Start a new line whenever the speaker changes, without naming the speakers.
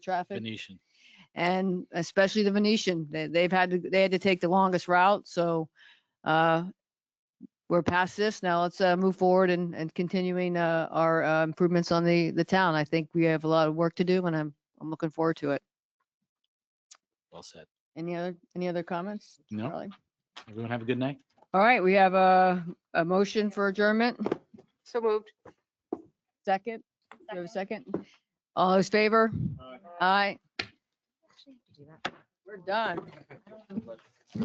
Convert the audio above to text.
traffic
Venetian.
and especially the Venetian. They, they've had to, they had to take the longest route. So, uh, we're past this now. Let's, uh, move forward and, and continuing, uh, our, uh, improvements on the, the town. I think we have a lot of work to do and I'm, I'm looking forward to it.
Well said.
Any other, any other comments?
No,
Charlie?
everyone have a good night.
All right, we have a, a motion for adjournment.
So moved.
Second, do you have a second? All those favor? Aye, we're done.